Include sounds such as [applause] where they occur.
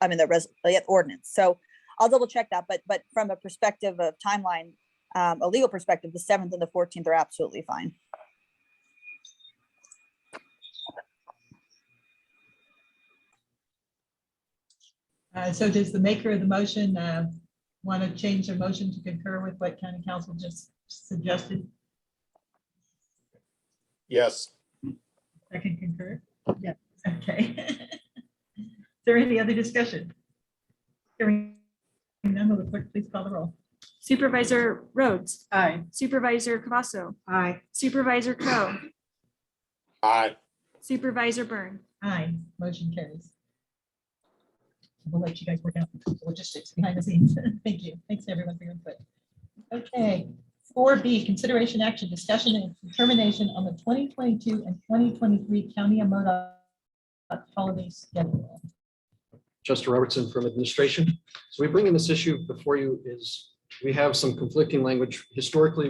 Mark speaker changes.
Speaker 1: I mean, the res, the ordinance. So I'll double check that, but, but from a perspective of timeline, um, a legal perspective, the seventh and the fourteenth are absolutely fine.
Speaker 2: Uh, So does the maker of the motion uh, want to change their motion to concur with what county council just suggested?
Speaker 3: Yes,
Speaker 2: I can concur? Yeah. Okay. [laughs] Is there any other discussion? Hearing none, will the clerk please call the roll?
Speaker 4: Supervisor Rhodes,
Speaker 2: Aye.
Speaker 4: Supervisor Cavasso,
Speaker 2: Aye.
Speaker 4: Supervisor Crowe,
Speaker 3: aye,
Speaker 4: Supervisor Byrne.
Speaker 2: Aye, motion carries. We'll let you guys work out the logistics behind the scenes. [laughs] Thank you. Thanks, everyone, for your input. Okay, four B, consideration action, discussion and determination on the twenty twenty-two and twenty twenty-three county and MoDOT holiday schedule.
Speaker 5: Chester Robertson from administration. So we bring in this issue before you is, we have some conflicting language historically